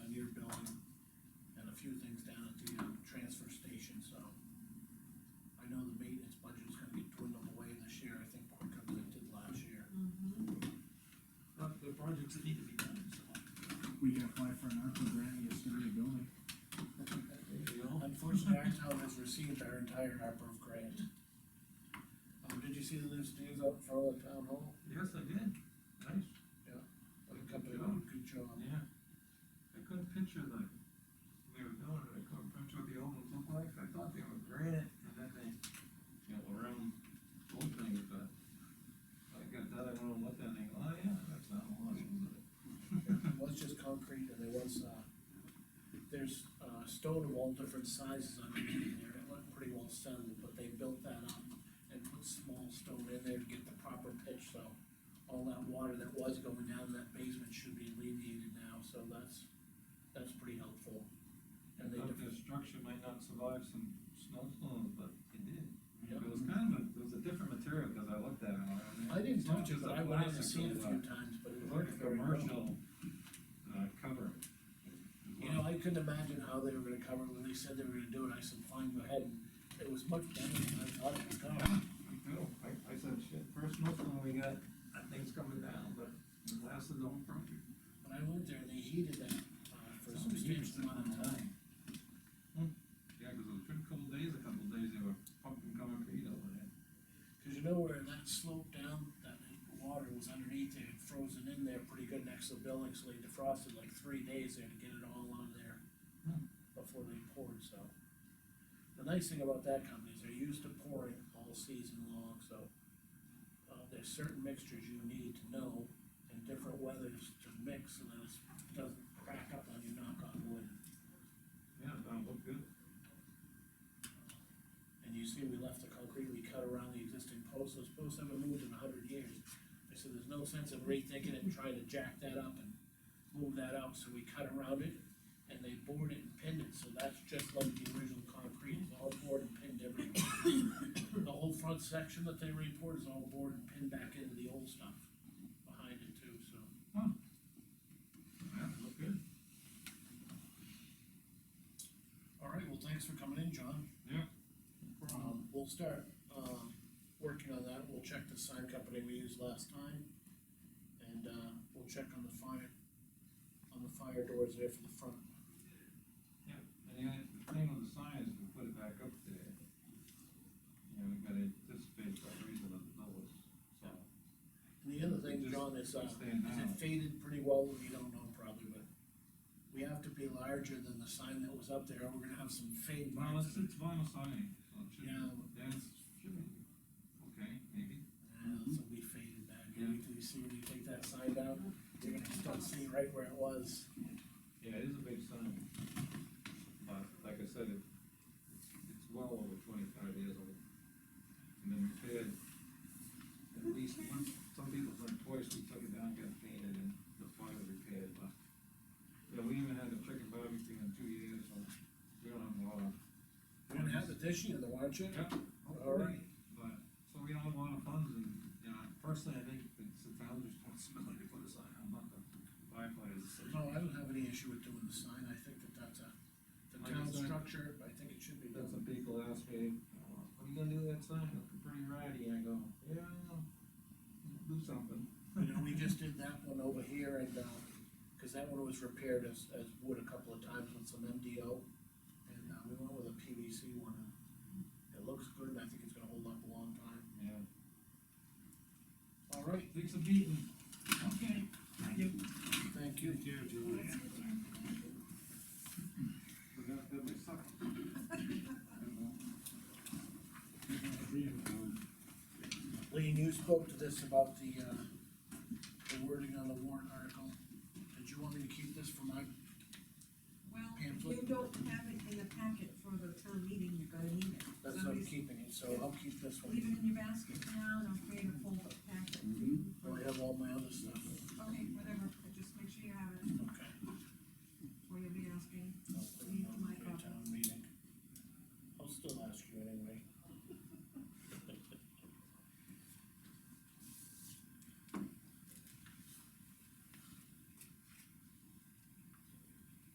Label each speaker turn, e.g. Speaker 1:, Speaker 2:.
Speaker 1: uh,
Speaker 2: we can apply for an ARPA grant, and it's gonna be a building.
Speaker 3: There you go.
Speaker 1: Unfortunately, our town has received our entire ARPA grant. Um, did you see the loose leaves out in front of the town hall?
Speaker 3: Yes, I did, nice,
Speaker 1: The company did a good job.
Speaker 3: yeah. I couldn't picture the, they were doing it, I couldn't picture what the old ones looked like, I thought they were granite, and then they, you know, around old things, but I got that, I went and looked at it, and I go, oh, yeah, that's not a lot, was it?
Speaker 1: It was just concrete and there was, uh, there's, uh, stone of all different sizes underneath there, it looked pretty well centered, but they built that up and put small stone in there to get the proper pitch, so all that water that was going down in that basement should be alleviated now, so that's, that's pretty helpful.
Speaker 3: I
Speaker 1: And they,
Speaker 3: thought the
Speaker 1: def-
Speaker 3: structure might not survive some snowstorms, but it did.
Speaker 1: Yeah.
Speaker 3: It was kind of, a- it was a different material, cause I looked at it. and
Speaker 1: I didn't
Speaker 3: it's not
Speaker 1: touch it,
Speaker 3: just
Speaker 1: but I
Speaker 3: a
Speaker 1: went in and
Speaker 3: plastic
Speaker 1: seen it a
Speaker 3: with
Speaker 1: few times, but it
Speaker 3: It was like
Speaker 1: worked
Speaker 3: a
Speaker 1: very well.
Speaker 3: commercial, uh, cover.
Speaker 1: You know, I couldn't imagine how they were gonna cover it when they said they were gonna do it, I said, fine, go ahead, and it was much better than I thought it was
Speaker 3: Yeah,
Speaker 1: gonna be.
Speaker 3: me too. I, I said, shit, first snowstorm we got, that thing's coming down, but it lasted the whole project.
Speaker 1: When I went there, they heated that, uh, for a
Speaker 3: Something huge
Speaker 1: substantial amount of
Speaker 3: happened.
Speaker 1: time.
Speaker 3: Hmm. Yeah, cause it was a pretty couple days, a couple days, they were pumping concrete over there.
Speaker 1: Cause you know where that sloped down, that water was underneath there, it frozen in there pretty good next to the building, so they defrosted like three days there to get it all out of there
Speaker 3: Hmm.
Speaker 1: before they poured, so. The nice thing about that company is they're used to pouring all season long, so. Uh, there's certain mixtures you need to know in different weathers to mix, so that it doesn't crack up on you, knock on wood.
Speaker 3: Yeah, that looked good.
Speaker 1: And you see, we left the concrete, we cut around the existing posts, those posts haven't moved in a hundred years. I said, there's no sense of rethinking it and trying to jack that up and move that out, so we cut around it. And they bored it and pinned it, so that's just like the original concrete, it's all bored and pinned everywhere. The whole front section that they report is all bored and pinned back into the old stuff behind it too, so.
Speaker 3: Yeah, it looked good.
Speaker 1: All right, well, thanks for coming in, John.
Speaker 3: Yeah.
Speaker 1: Um, we'll start, um, working on that, we'll check the sign company we used last time. And, uh, we'll check on the fire, on the fire doors there for the front.
Speaker 3: Yeah, and the other the thing with the sign is we put it back up there. You know, we gotta anticipate that reason of the dollars, so.
Speaker 1: And the other thing,
Speaker 3: Just-
Speaker 1: John, is, uh,
Speaker 3: just stand
Speaker 1: is
Speaker 3: down.
Speaker 1: it faded pretty well, we don't know probably, but. We have to be larger than the sign that was up there, or we're gonna have some fade
Speaker 3: Well,
Speaker 1: marks.
Speaker 3: it's, it's vinyl siding, so it should,
Speaker 1: Yeah.
Speaker 3: yeah, it's, should be, okay, maybe.
Speaker 1: Yeah, this will be faded back, and if you see, when you take that sign down, you're gonna start seeing right where it was.
Speaker 3: Yeah, it is a big sign. But like I said, it, it's, it's well over twenty-five years old. And then repaired, at least once, some people done twice, we took it down, got it painted and the fire repaired, but. Yeah, we even had a chicken barbecue in two years, so we don't have a lot of.
Speaker 1: We're gonna have it this year though, aren't you?
Speaker 3: Yeah, all right, but, so we don't have a lot of funds and, you know, personally, I think it's the town's responsibility to put a sign, I'm not the firefighters.
Speaker 1: No, I don't have any issue with doing the sign, I think that that's a, the
Speaker 3: Like
Speaker 1: town
Speaker 3: the sign.
Speaker 1: structure, I think it should be
Speaker 3: That's
Speaker 1: done.
Speaker 3: what people ask me, "Oh, what are you gonna do with that sign, looking pretty ratty, I go, yeah, I'll do something.
Speaker 1: You know, we just did that one over here and, uh, cause that one was repaired as, as wood a couple of times with some MDO. And, uh, we went with a PVC one, and it looks good, and I think it's gonna hold up a long time.
Speaker 3: Yeah.
Speaker 1: All right,
Speaker 3: Takes a beating. Okay.
Speaker 1: thank you.
Speaker 2: Yeah, John.
Speaker 3: Forgot that my sock.
Speaker 1: Lean, you spoke to this about the, uh, the wording on the warrant article. Did you want me to keep this for my,
Speaker 4: Well, you
Speaker 1: Pamphlet?
Speaker 4: don't have it in the packet for the town meeting, you're gonna need it.
Speaker 1: that's
Speaker 4: So
Speaker 1: what I'm
Speaker 4: just
Speaker 1: keeping it, so I'll keep this one.
Speaker 4: Leave it in your basket for now, and I'll create a folder packet.
Speaker 2: Mhm.
Speaker 1: Mm-hmm.